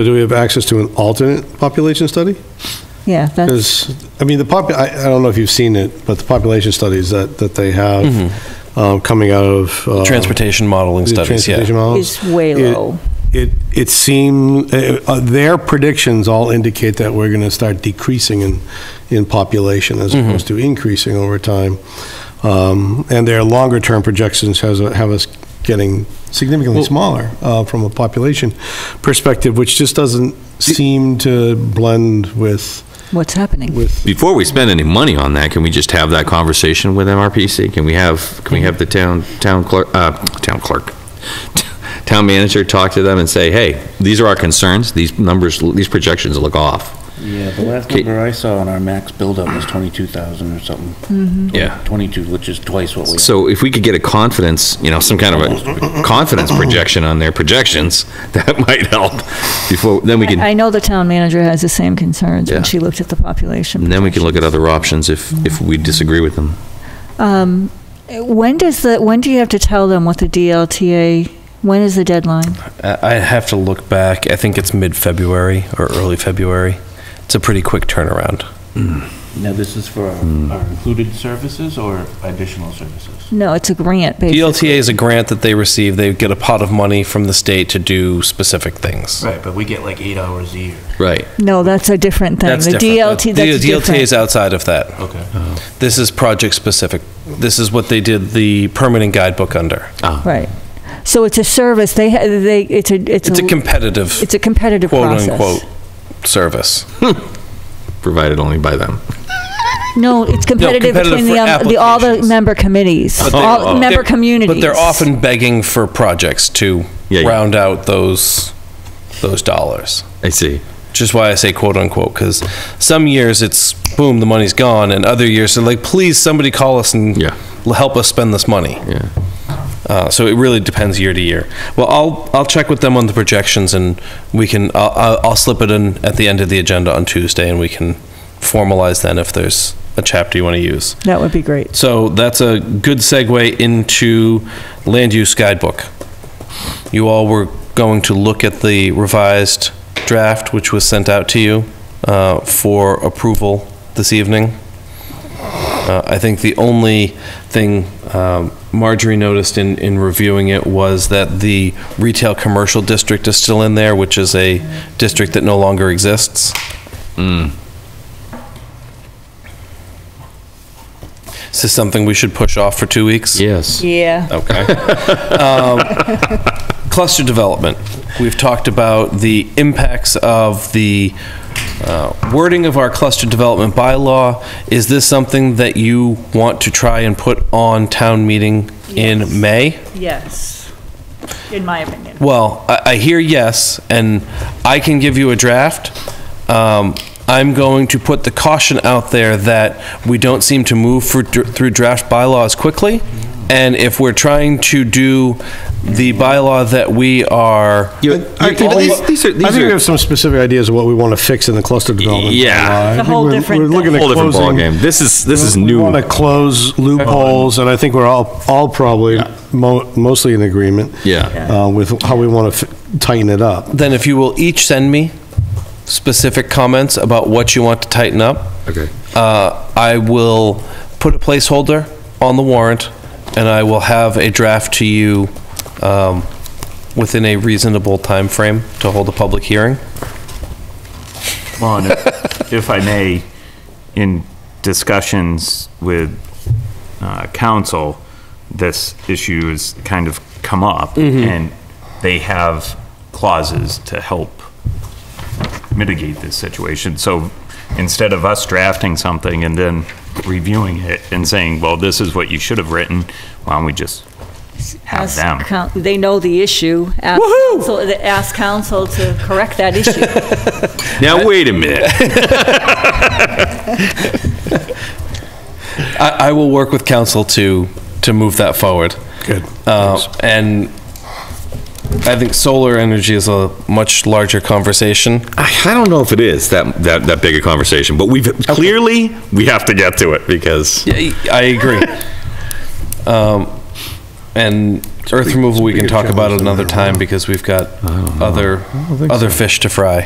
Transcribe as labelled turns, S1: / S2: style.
S1: Do we have access to an alternate population study?
S2: Yeah, that's,
S1: Because, I mean, the pop, I, I don't know if you've seen it, but the population studies that, that they have um, coming out of. uh,
S3: Transportation modeling
S1: the
S3: studies,
S1: transportation
S3: yeah.
S1: models,
S2: is way
S1: it-
S2: low.
S1: It, it seemed, uh, uh, their predictions all indicate that we're going to start decreasing in, in population as
S4: Mm-hmm.
S1: opposed to increasing over time. Um, And their longer-term projections has, a- have us getting significantly smaller uh, from a population perspective, which just doesn't seem to blend with,
S2: What's happening?
S1: with
S4: Before we spend any money on that, can we just have that conversation with MRPC? Can we have, can we have the town, town clerk, uh, town clerk, town manager talk to them and say, hey, these are our concerns, these numbers, these projections look off?
S5: Yeah, the last
S4: Okay.
S5: number I saw on our max buildup was 22,000 or something.
S4: Yeah.
S5: 22, which is twice what we.
S4: So if we could get a confidence, you know, some kind of a confidence projection on their projections, that might help before, then we
S2: I
S4: can,
S2: know the town manager has the same concerns when
S4: Yeah.
S2: she looked at the population.
S4: then we can look at other options if, if we disagree with them.
S2: Um, When does the, when do you have to tell them what the DLTA, when is the deadline?
S3: I I have to look back. I think it's mid-February or early February. It's a pretty quick turnaround.
S5: Now, this is for
S4: Hmm.
S5: our our included services or additional services?
S2: No, it's a grant, basically.
S3: DLTA is E a grant that they receive. They get a pot of money from the state to do specific things.
S5: Right, but we get like eight hours a year.
S4: Right.
S2: No, that's a different thing.
S3: That's
S2: The
S3: different.
S2: DLT,
S3: The
S2: that's
S3: DLTA is
S2: different.
S3: outside of that.
S5: Okay.
S3: This is project-specific. This is what they did the permanent guidebook under.
S2: Right. So it's a service, they, ha- they, it's a, it's
S3: It's a
S2: a,
S3: competitive,
S2: it's a competitive process.
S3: quote-unquote, service.
S4: Provided only by them.
S2: No, it's competitive
S3: competitive
S2: between the,
S3: for
S2: um, the, all the
S3: applications.
S2: member committees, all, member
S3: They're-
S2: communities.
S3: But they're often begging for projects to
S4: Yeah, yeah.
S3: round out those, those dollars.
S4: I see.
S3: Which is why I say quote unquote, because some years it's boom, the money's gone, and other years they're like, please, somebody call us and
S4: Yeah.
S3: l- help us spend this money.
S4: Yeah.
S3: Uh, so it really depends year to year. Well, I'll I'll check with them on the projections, and we can I'll, I'll I'll slip it in at the end of the agenda on Tuesday, and we can formalize then if there's a chapter you want to use.
S2: That would be great.
S3: So that's a good segue into land use guidebook. You all were going to look at the revised draft, which was sent out to you uh, for approval this evening. Uh, I think the only thing um, Marjorie noticed in, in reviewing it was that the retail commercial district is still in there, which is a district that no longer exists. Is this something we should push off for two weeks?
S4: Yes.
S2: Yeah.
S3: Okay. Cluster development. We've talked about the impacts of the uh, wording of our cluster development bylaw. Is this something that you want to try and put on town meeting in May?
S2: Yes, in my opinion.
S3: Well, I, I hear yes, and I can give you a draft. Um, I'm going to put the caution out there that we don't seem to move for, through draft bylaws quickly. And if we're trying to do the bylaw that we are,
S4: You-
S1: I
S4: you-
S1: think
S4: but
S1: we-
S4: these- these are-
S1: I
S4: these
S1: think we
S4: are-
S1: have some specific ideas of what we want to fix in the cluster development.
S4: Yeah.
S1: bylaw. I
S2: It's a
S1: think
S2: whole
S1: we're-
S2: different
S1: We're looking at
S4: Whole different
S1: closing-
S4: ballgame. This is, this is
S1: We
S4: new.
S1: want to close loopholes, and I think we're all, all probably mo- mostly in agreement.
S4: Yeah.
S1: uh, With how we want to tighten it up.
S3: then if you will each send me specific comments about what you want to tighten up.
S4: Okay.
S3: Uh, I will put a placeholder on the warrant, and I will have a draft to you um, within a reasonable time frame to hold a public hearing.
S6: Well, and if if I may, in discussions with uh, council, this issue has kind of come up, and they have clauses to help mitigate this situation. So instead of us drafting something and then reviewing it and saying, well, this is what you should have written, why don't we just have them?
S2: They know the issue. Ask council- Ask council to correct that issue.
S4: Now, wait a minute.
S3: I, I will work with council to, to move that forward.
S1: Good.
S3: Uh, And I think solar energy is a much larger conversation.
S4: I I don't know if it is that, that, that big a conversation, but we've, clearly, we have to get to it because,
S3: Yeah, I agree. Um, And Earth removal, we can talk about
S1: challenge
S3: another
S1: than that,
S3: time because we've got other,
S1: don't think
S3: other fish to fry.